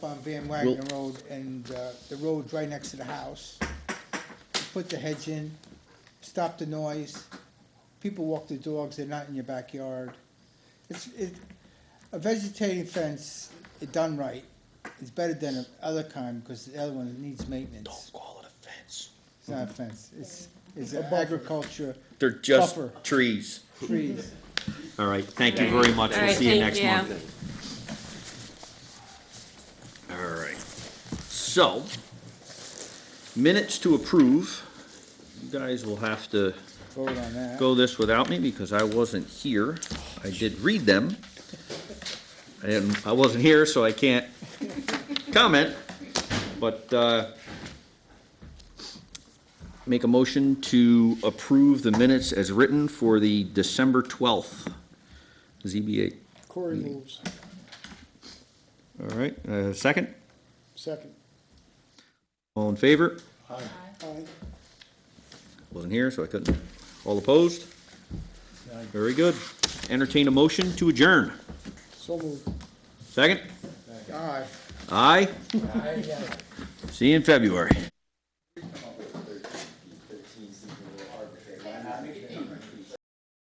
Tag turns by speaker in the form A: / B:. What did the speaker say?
A: on Van Wagner Road and uh, the road's right next to the house. Put the hedge in, stop the noise. People walk their dogs, they're not in your backyard. It's, it, a vegetating fence, it done right, is better than the other kind, because the other one needs maintenance.
B: call it a fence.
A: It's not a fence, it's, it's agriculture,
B: They're just
A: Buffer.
B: trees.
A: trees.
B: All right, thank you very much.
C: All
B: We'll
C: right,
B: see you
C: thank
B: next month. All right. So, minutes to approve. You guys will have to
A: Vote on that.
B: go this without me because I wasn't here. I did read them. And I wasn't here, so I can't comment, but, uh, make a motion to approve the minutes as written for the December twelfth ZBA.
D: Corey moves.
B: All right, uh, second,
D: Second.
B: all in favor?
D: Aye.
B: Wasn't here, so I couldn't. All opposed? Very good. Entertain a motion to adjourn.
D: So moved.
B: Second?
A: Aye.
B: Aye? See you in February.